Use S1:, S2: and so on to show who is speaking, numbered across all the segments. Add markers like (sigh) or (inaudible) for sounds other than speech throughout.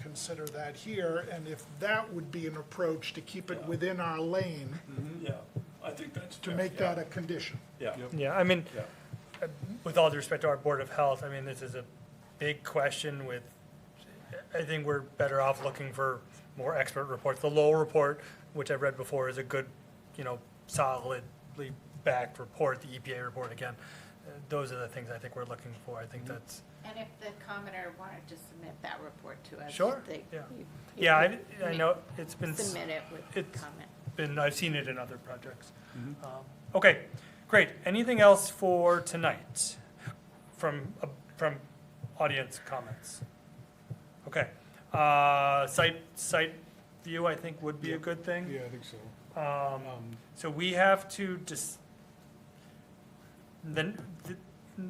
S1: consider that here, and if that would be an approach to keep it within our lane,
S2: Yeah, I think that's.
S1: to
S2: fair,
S1: make
S2: yeah,
S1: that a condition.
S2: Yeah,
S3: Yeah, I mean,
S2: yeah,
S3: with all due respect to our Board of Health, I mean, this is a big question with, I think we're better off looking for more expert reports. The Lowell report, which I've read before, is a good, you know, solidly backed report, the EPA report again. uh, Those are the things I think we're looking for. I think that's,
S4: And if the commenter wanted to submit that report to us.
S3: Sure,
S4: they-
S3: yeah.
S4: you- you
S3: yeah, I,
S4: would
S3: I
S4: ma-
S3: know it's been. s-
S4: Submit it with
S3: it's-
S4: comment.
S3: been, I've seen it in other projects.
S5: Mm-hmm.
S3: Um, Okay, great. Anything else for tonight from, uh, from audience comments? Okay, uh, site, site view, I think, would be a good thing.
S5: Yeah, I think so.
S3: Um,
S5: Um,
S3: So we have to just, then,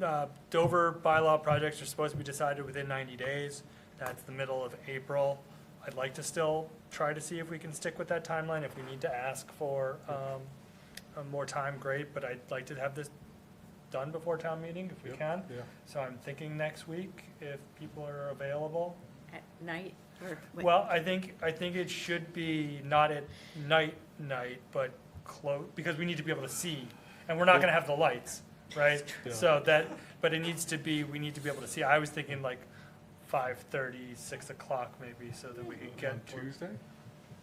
S3: uh, Dover bylaw projects are supposed to be decided within ninety days. That's the middle of April. I'd like to still try to see if we can stick with that timeline. If we need to ask for, um, uh, more time, great, but I'd like to have this done before town meeting if we
S5: Yep.
S3: can.
S5: Yeah,
S3: So I'm thinking next week, if people are available.
S4: At night or? what-
S3: Well, I think, I think it should be not at night, night, but close, because we need to be able to see, and we're not gonna have the lights, right?
S5: Yeah.
S3: So that, but it needs to be, we need to be able to see, I was thinking like five thirty, six o'clock maybe, so that we could
S5: on
S3: get,
S5: Tuesday?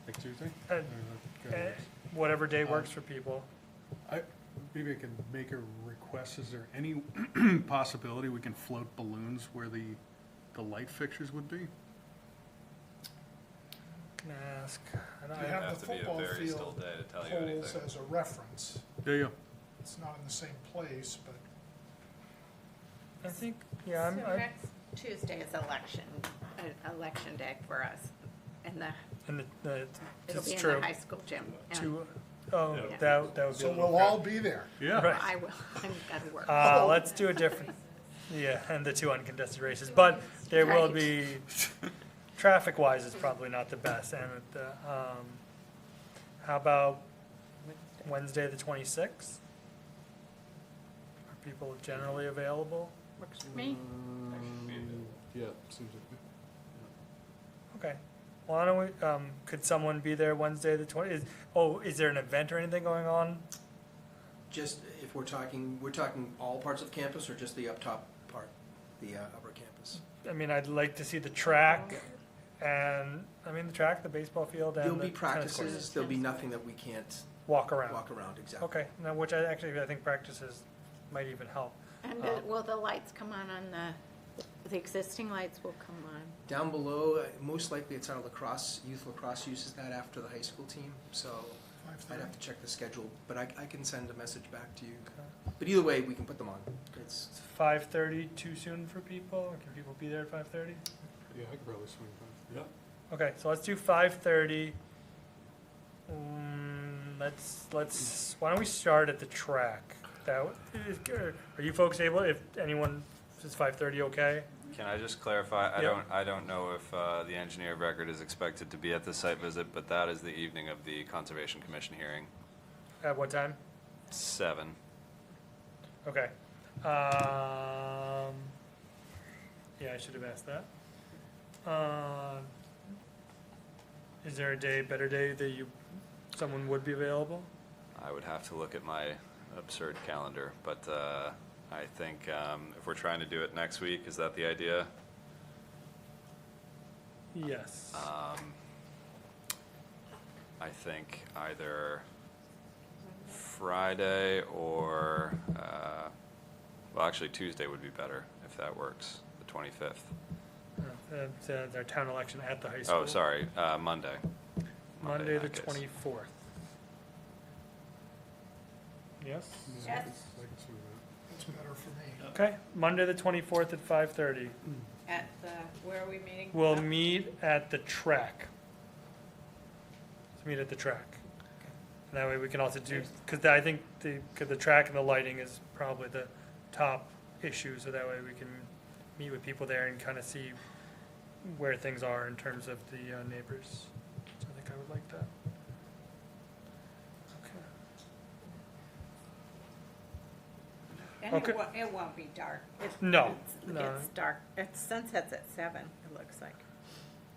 S5: Like Tuesday?
S3: uh,
S5: Or like, uh,
S3: eh, whatever day works for people.
S5: I, maybe I can make a request, is there any (clears throat) possibility we can float balloons where the, the light fixtures would be?
S3: Can I ask? I
S1: You
S3: don't-
S1: have the
S6: have to be a
S1: football
S6: very
S1: field
S6: still day to tell you
S1: Poles
S6: anything.
S1: as a reference,
S5: Yeah, yeah,
S1: it's not in the same place, but
S3: I think, yeah, I'm,
S4: So
S3: I,
S4: next Tuesday is election, uh, election day for us, and the,
S3: and the, the,
S4: it'll
S3: it's
S4: be in the
S3: true.
S4: high school gym. and
S3: Two, oh,
S2: Yeah.
S3: that, that would be a
S1: So
S3: little
S1: we'll all be there.
S5: yeah.
S3: Right.
S4: I will, (laughs) I've got to work.
S3: Uh, let's do a different, yeah, and the two uncontested races, but there will be,
S4: Right.
S3: traffic-wise is probably not the best, and, the, um, how about Wednesday, the twenty-sixth? Are people generally available?
S4: Works for me.
S5: Yeah, seems like.
S3: Okay, why don't we, um, could someone be there Wednesday, the twenty, is, oh, is there an event or anything going on?
S7: Just if we're talking, we're talking all parts of campus or just the up top part, the uh, upper campus?
S3: I mean, I'd like to see the track, and, I mean, the track, the baseball field,
S7: There'll
S3: and
S7: be
S3: the tennis courts,
S7: practices, there'll be nothing that we can't
S3: walk around.
S7: walk around, exactly.
S3: Okay, now, which I actually, I think practices might even help.
S4: And uh, will the lights come on on the, the existing lights will come on?
S7: Down below, uh, most likely it's our lacrosse, youth lacrosse uses that after the high school team, so I'd have to check the schedule, but I, I can send a message back to you. But either way, we can put them on. It's,
S3: Is five thirty too soon for people, or can people be there at five thirty?
S5: Yeah, I could probably swing by.
S2: yeah.
S3: Okay, so let's do five thirty. Mm, let's, let's, why don't we start at the track? That, w- is good. are you folks able, if anyone, is five thirty okay?
S6: Can I just clarify? I
S3: Yeah.
S6: don't, I don't know if uh, the engineer of record is expected to be at the site visit, but that is the evening of the Conservation Commission hearing,
S3: At what time?
S6: seven.
S3: Okay. Um, yeah, I should have asked that. Uh, is there a day, better day that you, someone would be available?
S6: I would have to look at my absurd calendar, but uh, I think um, if we're trying to do it next week, is that the idea?
S3: Yes.
S6: Um, I think either Friday or, uh, well, actually Tuesday would be better, if that works, the 25th.
S3: Uh, it's, uh, their town election at the high school.
S6: Oh, sorry, uh, Monday.
S3: Monday,
S6: in
S3: the
S6: that case.
S3: twenty-fourth. Yes?
S5: Yeah, I
S4: Yes.
S5: could- I could swing by.
S1: It's better for me.
S3: Okay, Monday, the twenty-fourth at five-thirty.
S4: At the, where are we meeting?
S3: We'll meet at the track. Let's meet at the track. And that way we can also do, because I think the, because the track and the lighting is probably the top issue, so that way we can meet with people there and kind of see where things are in terms of the uh, neighbors. So I think I would like that. Okay.
S4: And
S3: Okay.
S4: it won't, it won't be dark. It-
S3: No,
S4: it's-
S3: no.
S4: It's dark, it sunsets at seven, it looks like.